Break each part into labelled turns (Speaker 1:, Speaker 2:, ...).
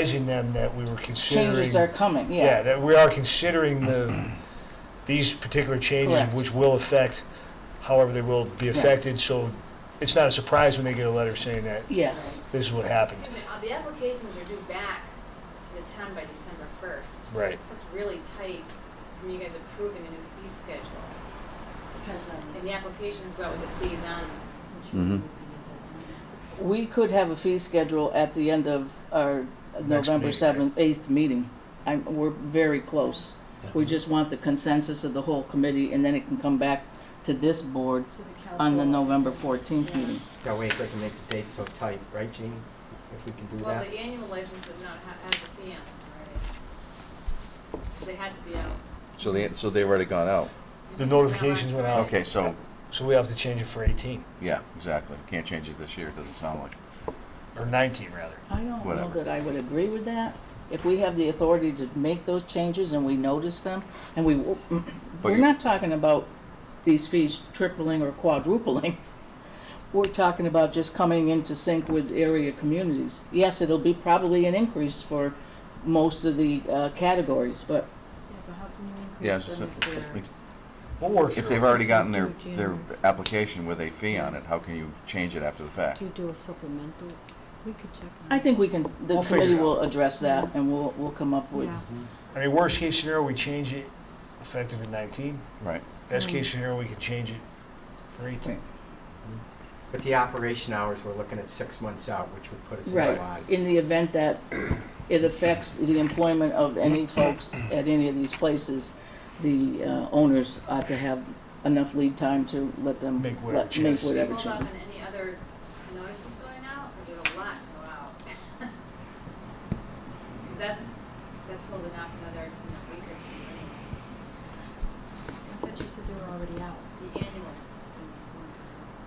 Speaker 1: advising them that we were considering.
Speaker 2: Changes are coming, yeah.
Speaker 1: that we are considering the, these particular changes,
Speaker 2: Correct.
Speaker 1: which will affect, however they will be affected, so it's not a surprise when they get a letter saying that
Speaker 2: Yes,
Speaker 1: this is what happened.
Speaker 3: Excuse me, uh, the applications are due back to the town by December first.
Speaker 1: Right.
Speaker 3: So it's really tight from you guys approving a new fee schedule.
Speaker 4: Depends on
Speaker 3: And the applications go out with the fees on them.
Speaker 4: what you're
Speaker 5: Mhm.
Speaker 4: looking at
Speaker 2: we could have a fee schedule at the end of our
Speaker 1: Next
Speaker 2: November
Speaker 1: meeting.
Speaker 2: seventh, eighth meeting. i we're very close. We just want the consensus of the whole committee and then it can come back to this board
Speaker 4: that. To the council.
Speaker 2: on the November fourteenth
Speaker 4: Yeah.
Speaker 2: meeting.
Speaker 6: That way it doesn't make the date so tight, right, Gene? If we can do
Speaker 3: Well,
Speaker 6: that.
Speaker 3: the annual license does not ha- have the fee on them already. So They had to be out.
Speaker 5: So they, so they already gone out.
Speaker 1: The notifications went out.
Speaker 5: Okay, so,
Speaker 1: So we have to change it for 18,
Speaker 5: yeah, exactly. Can't change it this year, doesn't sound like.
Speaker 1: or 19, rather.
Speaker 2: I don't know
Speaker 5: Whatever.
Speaker 2: that I would agree with that. If we have the authority to make those changes and we notice them, and we, we're
Speaker 5: you-
Speaker 2: not talking about these fees tripling or quadrupling. We're talking about just coming into sync with area communities. Yes, it'll be probably an increase for most of the uh, categories, but
Speaker 4: Yeah, but how can you
Speaker 5: Yeah,
Speaker 4: increase
Speaker 5: it's
Speaker 4: them if they're?
Speaker 5: just-
Speaker 1: We'll work
Speaker 5: if
Speaker 1: through
Speaker 5: they've
Speaker 1: it.
Speaker 5: already gotten their, their application with a fee on it, how can you change it after the fact?
Speaker 4: Do you uh, do a supplemental? We could check on
Speaker 2: I
Speaker 4: it.
Speaker 2: think we can, the
Speaker 1: We'll figure it
Speaker 2: committee
Speaker 1: out.
Speaker 2: will address that and we'll, we'll come up with.
Speaker 4: Yeah.
Speaker 6: Mhm,
Speaker 1: I mean, worst case scenario, we change it effective in 19.
Speaker 5: Right.
Speaker 1: Best
Speaker 2: Mm-hmm.
Speaker 1: case scenario, we can change it for 18.
Speaker 6: mhm. But the operation hours, we're looking at six months out, which would put us in July.
Speaker 2: Right, in the event that it affects the employment of any folks at any of these places, the uh, owners ought to have enough lead time to let them,
Speaker 1: Make whatever
Speaker 2: let, make
Speaker 1: changes.
Speaker 3: Should we
Speaker 2: whatever
Speaker 3: hold off
Speaker 2: change.
Speaker 3: on any other notices going out? Because there's a lot to go out. That's, that's holding off another, you know, week or two.
Speaker 4: I thought you said they were already out.
Speaker 3: The annual is one's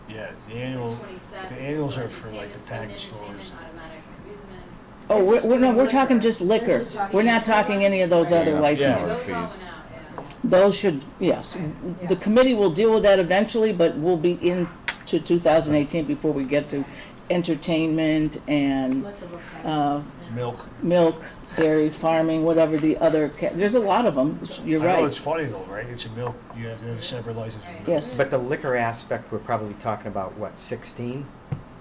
Speaker 3: going
Speaker 1: Yeah, the
Speaker 3: out.
Speaker 1: annual,
Speaker 3: It's like 27,
Speaker 1: the annuals
Speaker 3: so
Speaker 1: are for, like, the
Speaker 3: entertainment,
Speaker 1: package
Speaker 3: sun
Speaker 1: stores.
Speaker 3: entertainment, automatic amusement.
Speaker 2: Oh, we're, we're, no, we're talking just
Speaker 4: They're
Speaker 2: liquor,
Speaker 4: just talking-
Speaker 2: we're not talking any of those other
Speaker 5: Yeah.
Speaker 2: licenses.
Speaker 5: Yeah.
Speaker 3: Those all
Speaker 5: fees.
Speaker 3: went out, yeah.
Speaker 2: Those should, yes, the committee will deal with that eventually, but we'll be into two thousand eighteen before we get to entertainment and,
Speaker 4: Less of a fact.
Speaker 2: uh,
Speaker 1: milk.
Speaker 2: milk, dairy, farming, whatever the other, ca- there's a lot of them, you're
Speaker 1: I know
Speaker 2: right.
Speaker 1: it's funny though, right? It's a milk, you have to have a separate license. for
Speaker 3: Right.
Speaker 1: milk.
Speaker 2: Yes.
Speaker 6: But the liquor aspect, we're probably talking about, what, sixteen?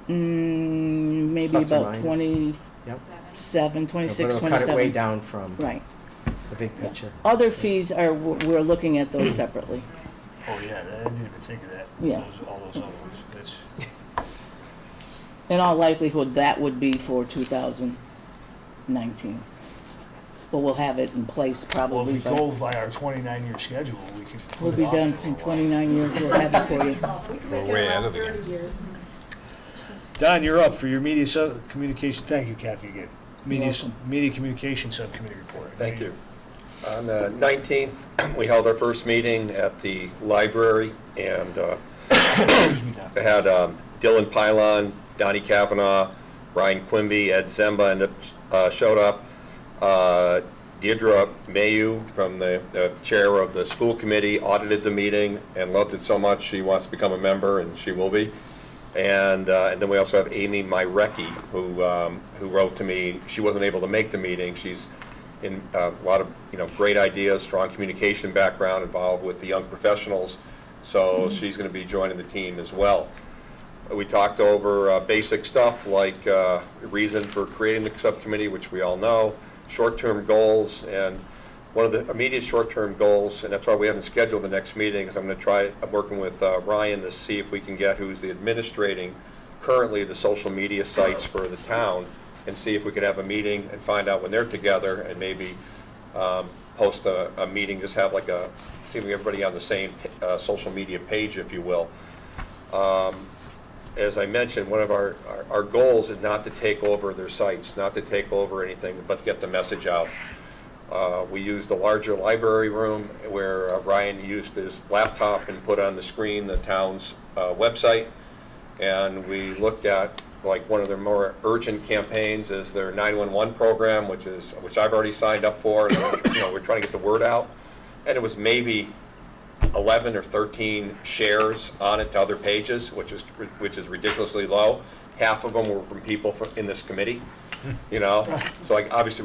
Speaker 2: Mm, maybe
Speaker 6: Plus or
Speaker 2: about
Speaker 6: minus.
Speaker 2: twenty-seven,
Speaker 6: Yep.
Speaker 3: Seven.
Speaker 2: twenty-six,
Speaker 6: But it'll cut it way
Speaker 2: twenty-seven,
Speaker 6: down from
Speaker 2: right.
Speaker 6: the big
Speaker 2: yeah.
Speaker 6: picture.
Speaker 2: Other fees are, we're looking at those separately.
Speaker 1: Oh, yeah, I didn't even think of that.
Speaker 2: Yeah.
Speaker 1: Those- All those other ones, that's,
Speaker 2: In all likelihood, that would be for two thousand nineteen. But we'll have it in place
Speaker 1: well, if
Speaker 2: probably,
Speaker 1: we
Speaker 2: by
Speaker 1: go by our twenty-nine year schedule, we could. put
Speaker 2: we'll
Speaker 1: it
Speaker 2: be
Speaker 1: off
Speaker 2: done
Speaker 1: for a
Speaker 2: in
Speaker 1: while.
Speaker 2: twenty-nine years, we'll have it for you.
Speaker 7: We're way out of the game.
Speaker 1: Don, you're up for your media sub, communication, thank you Kathy again. Media, s-
Speaker 2: welcome.
Speaker 1: media communication subcommittee report.
Speaker 7: Thank you. On the 19th, we held our first meeting at the library, and uh,
Speaker 1: Excuse me, Don.
Speaker 7: I had um, Dylan Pylon, Donnie Kavanaugh, Ryan Quimby, Ed Zemba ended up, uh, showed up. Uh, Deirdre Mayu from the the chair of the school committee audited the meeting and loved it so much, she wants to become a member, and she will be. And, uh, and then we also have Amy Myrecki, who, um, who wrote to me, she wasn't able to make the meeting, she's in uh, a lot of, you know, great ideas, strong communication background involved with the young professionals, so she's gonna be joining the team as well. We talked over uh, basic stuff like uh, reason for creating the subcommittee, which we all know, short-term goals, and one of the immediate short-term goals, and that's why we haven't scheduled the next meeting, is I'm going to try, I'm working with uh, Ryan to see if we can get who's the administrating currently the social media sites for the town, and see if we could have a meeting and find out when they're together, and maybe um, post a, a meeting, just have like a, see if we get everybody on the same uh, social media page, if you will as I mentioned, one of our, our- our goals is not to take over their sites, not to take over anything, but to get the message out. Uh, We used the larger library room where uh, Ryan used his laptop and put on the screen the town's uh, website. And we looked at, like, one of their more urgent campaigns is their 911 program, which is, which I've already signed up for. and, You know, we're trying to get the word out. And it was maybe 11 or 13 shares on it to other pages, which is, which is ridiculously low. Half of them were from people fro- in this committee. you know? So like, obviously,